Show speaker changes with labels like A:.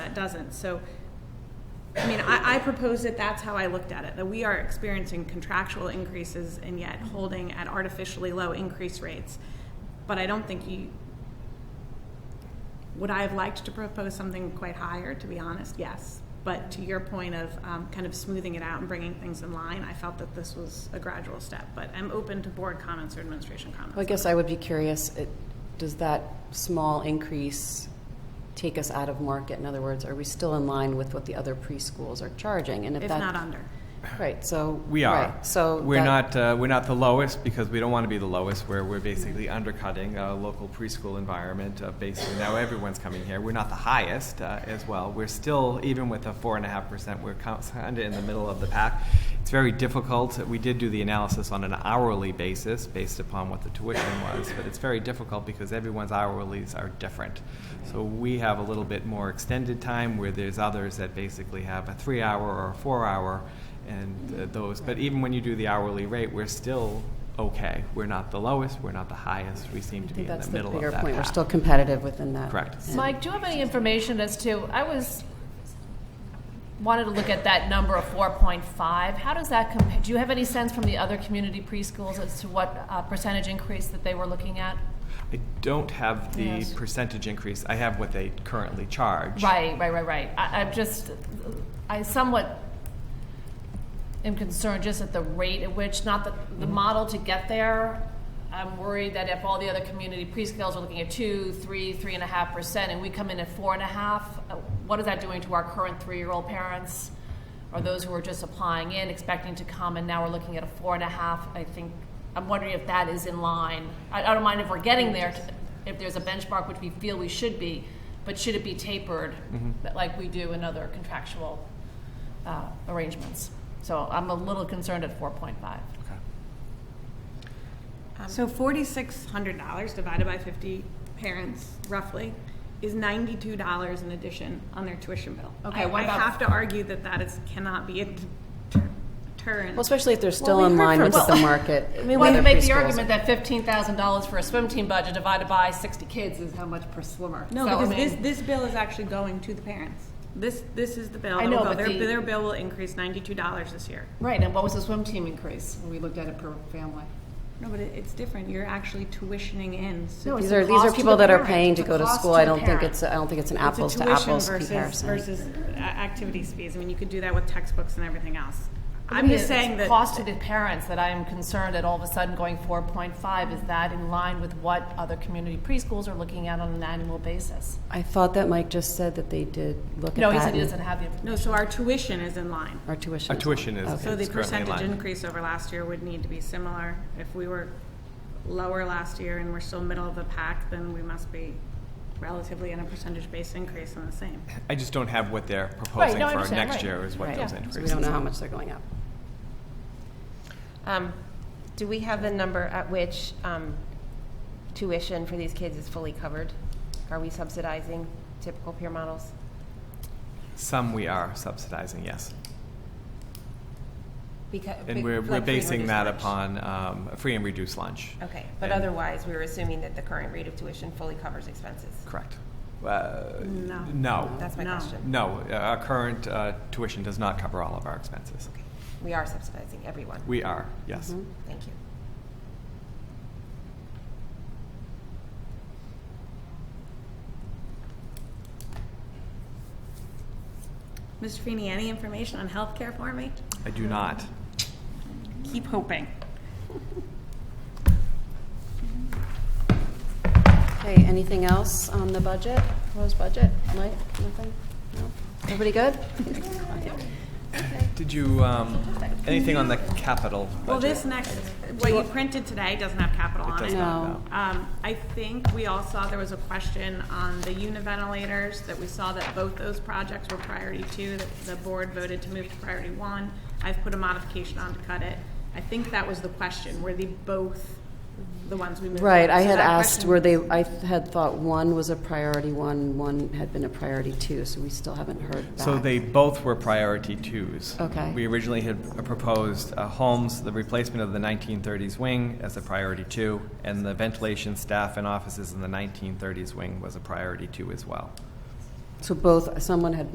A: that doesn't. So, I mean, I, I propose that that's how I looked at it, that we are experiencing contractual increases and yet holding at artificially low increase rates. But I don't think you, would I have liked to propose something quite higher, to be honest? Yes. But to your point of um, kind of smoothing it out and bringing things in line, I felt that this was a gradual step. But I'm open to board comments or administration comments.
B: Well, I guess I would be curious, it- does that small increase take us out of market? In other words, are we still in line with what the other preschools are charging? And
A: If
B: that-
A: not under.
B: Right, so.
C: We are.
B: right, So.
C: we're
B: that-
C: not uh, we're not the lowest because we don't want to be the lowest. Where we're basically undercutting a local preschool environment. Uh, basically, now everyone's coming here. We're not the highest uh, as well. We're still even with a four and a half percent. We're kind of in the middle of the pack. It's very difficult. We did do the analysis on an hourly basis based upon what the tuition was, but it's very difficult because everyone's hourlies are different. So we have a little bit more extended time where there's others that basically have a three-hour or a four-hour and uh, those. But even when you do the hourly rate, we're still okay. We're not the lowest, we're not the highest. We seem
B: I
C: to be
B: think
C: in the
B: that's the
C: middle of
B: bigger
C: that
B: point, we're
C: path.
B: still competitive within that.
C: Correct.
B: And-
D: Mike, do you have any information as to, I was, wanted to look at that number of 4.5. How does that compare, do you have any sense from the other community preschools as to what uh, percentage increase that they were looking at?
C: I don't have the
D: Yes.
C: percentage increase. I have what they currently charge.
D: Right, right, right, right. I, I'm just, I somewhat am concerned just at the rate at which, not the, the model to get there. I'm worried that if all the other community preschools are looking at two, three, three and a half percent, and we come in at four and a half, uh, what is that doing to our current three-year-old parents? Or those who are just applying in, expecting to come, and now we're looking at a four and a half, I think, I'm wondering if that is in line. I, I don't mind if we're getting there, if there's a benchmark which we feel we should be, but should it be tapered like we do in other contractual uh, arrangements? So I'm a little concerned at 4.5.
C: Okay.
D: Um,
A: So forty-six hundred dollars divided by fifty parents roughly is ninety-two dollars in addition on their tuition bill.
D: Okay,
A: I-
D: what
A: I
D: about-
A: have to argue that that is, cannot be a deter- deterrent.
B: Well, especially if they're still
A: we
B: in
A: heard
B: line
A: from-
B: with
A: well-
B: the market.
D: I mean,
B: the
D: one
B: other
D: could make the
B: preschools.
D: argument that $15,000 for a swim team budget divided by 60 kids is how much per swimmer.
A: No,
D: So, I
A: because this,
D: mean-
A: this bill is actually going to the parents. This, this is the bill.
D: I
A: that will
D: know,
A: go-
D: but
A: Their,
D: the-
A: their bill will increase ninety-two dollars this year.
D: Right, and what was the swim team increase when we looked at it per family?
A: No, but it, it's different. You're actually tuitioning in. So
D: No,
A: it's
B: These
D: the
B: are, these
D: cost
B: are
D: to
B: people
D: the
B: that are
D: parent,
B: paying to
D: the
B: go to
D: cost
B: school.
D: to
B: I
D: the
B: don't think
D: parent.
B: it's, a- I don't think it's an
A: a
B: apples to
A: tuition
B: apples
A: versus-
B: comparison.
A: Versus uh, activities fees. I mean, you could do that with textbooks and everything else. I'm
D: Maybe
A: just
D: it's
A: saying that.
D: Cost to the parents that I am concerned that all of a sudden going four point five, is that in line with what other community preschools are looking at on an annual basis?
B: I thought that Mike just said that they did look at that.
D: No, he said he
B: and
D: doesn't have the information.
A: No, so our tuition is in line.
B: Our tuition.
C: Our
B: is-
C: tuition is,
B: Okay.
A: So the
C: is currently in
A: percentage
C: line.
A: increase over last year would need to be similar. If we were lower last year and we're still middle of the pack, then we must be relatively in a percentage-based increase on the same.
C: I just don't have what they're proposing
D: no, I
C: for
D: understand,
C: next
D: right.
C: year is what
B: Right.
C: those
B: So
C: increases.
B: we don't know how much they're going up.
E: Um, Do we have the number at which um, tuition for these kids is fully covered? Are we subsidizing typical peer models?
C: Some we are subsidizing, yes.
E: Because
C: And we're, we're basing that upon um, a free and reduced lunch.
E: Okay, but
C: And-
E: otherwise, we're assuming that the current rate of tuition fully covers expenses.
C: Correct. Uh,
A: No.
C: No.
E: That's my
A: No.
E: question.
C: No, uh, our current uh, tuition does not cover all of our expenses.
E: We are subsidizing everyone.
C: We are, yes.
A: Mm-hmm.
E: Thank you.
A: Mr. Feeney, any information on healthcare for me?
C: I do not.
A: Keep hoping.
B: Okay, anything else on the budget, proposed budget? Mike, nothing? No? Everybody good?
C: Did you, um, anything on the capital budget?
A: Well, this next, what you printed today doesn't have capital
C: It
A: on
C: does
A: it.
C: not,
B: No.
C: no.
A: Um, I think we all saw there was a question on the univentilators, that we saw that both those projects were priority two, that the board voted to move to priority one. I've put a modification on to cut it. I think that was the question, were the both the ones we moved?
B: Right,
A: up?
B: I
A: So
B: had
A: that
B: asked
A: question-
B: were they, I had thought one was a priority one, one had been a priority two, so we still haven't heard back.
C: So they both were priority twos.
B: Okay.
C: We originally had uh, proposed uh, Holmes, the replacement of the 1930s wing as a priority two, and the ventilation staff and offices in the 1930s wing was a priority two as well.
B: So both, someone had